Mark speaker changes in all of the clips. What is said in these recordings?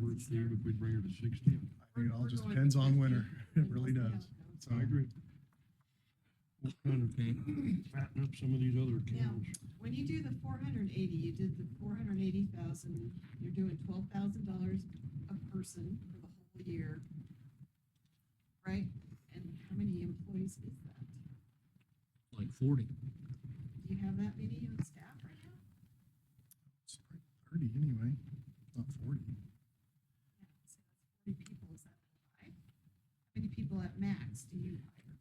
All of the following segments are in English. Speaker 1: would Steve if we bring her to sixty?
Speaker 2: I think it all just depends on winter. It really does. So,
Speaker 1: I agree. We'll kind of fatten up some of these other accounts.
Speaker 3: When you do the four hundred and eighty, you did the four hundred and eighty thousand, you're doing twelve thousand dollars a person for the whole year. Right? And how many employees is that?
Speaker 4: like forty.
Speaker 3: Do you have that many on staff right now?
Speaker 2: it's like thirty anyway, not forty.
Speaker 3: Yeah, so that's Forty people, is that high? How many people at max do you hire?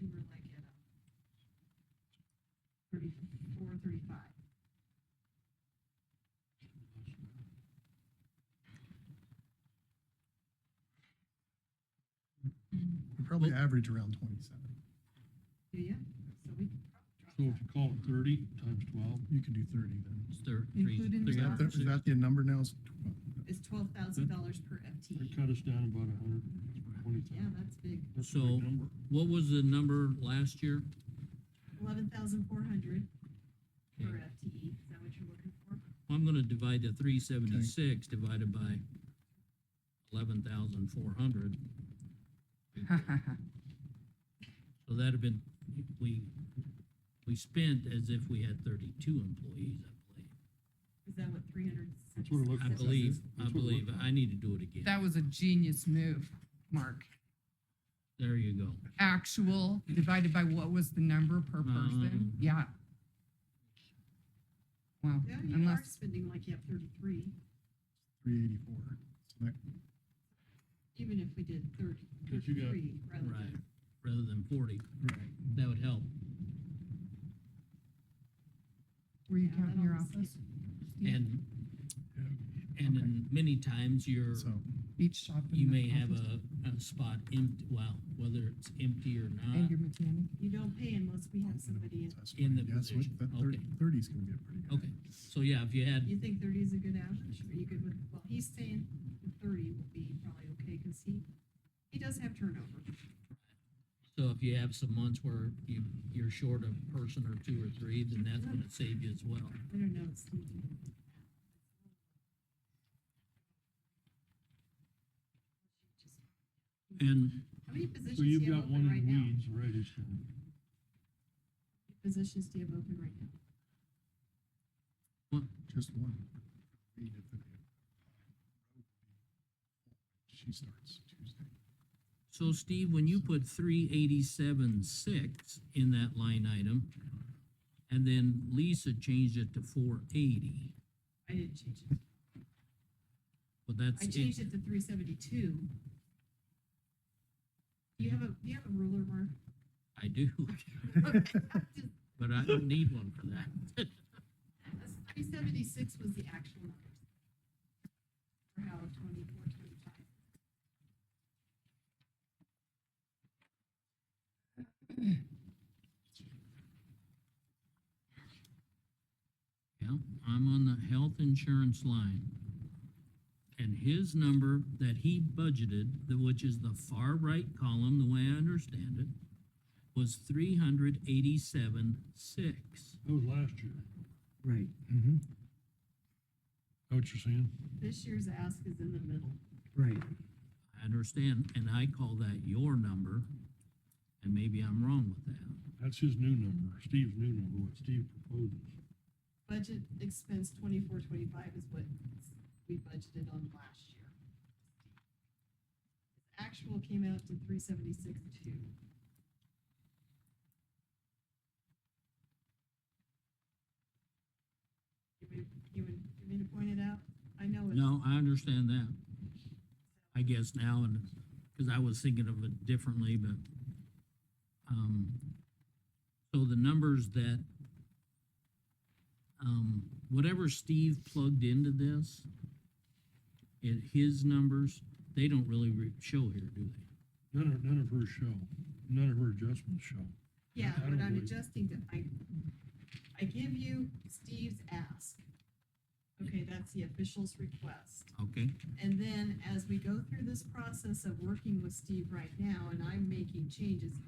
Speaker 3: You were like at um, thirty-four, thirty-five.
Speaker 2: We probably average around twenty-seven.
Speaker 3: Do you? So we could
Speaker 1: So
Speaker 3: probably
Speaker 1: if you
Speaker 3: drop
Speaker 1: call it thirty times twelve,
Speaker 2: You could do thirty then.
Speaker 4: It's thir- three-
Speaker 3: Including
Speaker 4: three
Speaker 2: Is
Speaker 3: the
Speaker 2: that,
Speaker 4: hundred
Speaker 2: the-
Speaker 4: and
Speaker 2: is
Speaker 4: sixty.
Speaker 2: that the number now? It's twelve.
Speaker 3: that. It's twelve thousand dollars per
Speaker 1: it'd
Speaker 3: FTE.
Speaker 1: cut us down about a hundred twenty
Speaker 3: Yeah,
Speaker 1: thousand.
Speaker 3: that's big.
Speaker 1: That's a
Speaker 4: So-
Speaker 1: big number.
Speaker 4: What was the number last year?
Speaker 3: Eleven thousand four hundred per
Speaker 4: Okay.
Speaker 3: FTE. Is that what you're looking for?
Speaker 4: I'm gonna divide the three seventy-six divided by eleven thousand four hundred. So that'd have been, we, we spent as if we had thirty-two employees, I
Speaker 3: Is that what three hundred?
Speaker 1: That's what it looks
Speaker 4: believe. I
Speaker 1: That's-
Speaker 4: believe, I
Speaker 1: that's what it
Speaker 4: believe,
Speaker 1: looked like.
Speaker 4: I need to do it again.
Speaker 5: That was a genius move, Mark.
Speaker 4: There you go.
Speaker 5: Actual divided by what was the number per person?
Speaker 4: Um,
Speaker 5: Yeah. Wow,
Speaker 3: Yeah, you are
Speaker 5: unless,
Speaker 3: spending like you have thirty-three,
Speaker 2: Three eighty-four. So that,
Speaker 3: even if we did thirty,
Speaker 1: But you got-
Speaker 3: thirty-three rather
Speaker 4: Right,
Speaker 3: than.
Speaker 4: rather than forty,
Speaker 2: right.
Speaker 4: that would help.
Speaker 5: were you
Speaker 3: Yeah,
Speaker 5: counting
Speaker 3: that
Speaker 5: your
Speaker 3: almost
Speaker 5: office? Steve?
Speaker 4: And, and in many times you're,
Speaker 2: So,
Speaker 5: Each shop. and
Speaker 4: you
Speaker 5: the
Speaker 4: may have
Speaker 5: office
Speaker 4: a, a spot empty, well, whether it's empty or
Speaker 5: And
Speaker 4: not.
Speaker 5: your mechanic.
Speaker 3: You don't pay unless we have somebody in.
Speaker 2: that's
Speaker 4: in the
Speaker 2: right. Yeah, so
Speaker 4: position.
Speaker 2: That thirty,
Speaker 4: Okay.
Speaker 2: thirty's gonna be a pretty good.
Speaker 4: Okay, so yeah, if you had,
Speaker 3: You think thirty is a good average? Are you good with, well, he's saying thirty will be probably okay, cause he, he does have turnover.
Speaker 4: so if you have some months where you, you're short a person or two or three, then that's gonna save you as well.
Speaker 3: I don't know, it's. tempting.
Speaker 4: And
Speaker 3: How many positions
Speaker 1: So
Speaker 3: do
Speaker 1: you've
Speaker 3: you have
Speaker 1: got one
Speaker 3: open
Speaker 1: in
Speaker 3: right now?
Speaker 1: weeds, right, it's, um,
Speaker 3: Positions do you have open right now?
Speaker 2: Just one. We need to- She starts Tuesday.
Speaker 4: so Steve, when you put three eighty-seven six in that line item, and then Lisa changed it to four eighty,
Speaker 3: I didn't change it.
Speaker 4: but that's.
Speaker 3: I
Speaker 4: it.
Speaker 3: changed it to three seventy-two. Do you have a, do you have a ruler, Mark?
Speaker 4: I do, but I don't need one for that.
Speaker 3: Three seventy-six was the actual number. For how twenty-four, twenty-five.
Speaker 4: Yeah, I'm on the health insurance line. And his number that he budgeted, the- which is the far right column, the way I understand it, was three hundred eighty-seven six.
Speaker 1: that was last year.
Speaker 4: Right.
Speaker 2: Mm-hmm.
Speaker 1: Know what you're saying?
Speaker 3: This year's ask is in the middle.
Speaker 4: Right. I understand, and I call that your number, and maybe I'm wrong with that.
Speaker 1: That's his new number, Steve's new number, what Steve proposes.
Speaker 3: Budget expense twenty-four, twenty-five is what we budgeted on last year. Actual came out to three seventy-six, two. You would, you would, you mean to point it out? I know it's.
Speaker 4: No, I understand that. I guess now, and, because I was thinking of it differently, but, um, so the numbers that, um, whatever Steve plugged into this, it, his numbers, they don't really re- show here, do they?
Speaker 1: None of, none of her show, none of her adjustments show.
Speaker 3: Yeah,
Speaker 1: I
Speaker 3: but
Speaker 1: don't
Speaker 3: I'm
Speaker 1: believe-
Speaker 3: adjusting to, I, I give you Steve's ask. Okay, that's the official's request.
Speaker 4: Okay,
Speaker 3: And then as we go through this process of working with Steve right now and I'm making changes,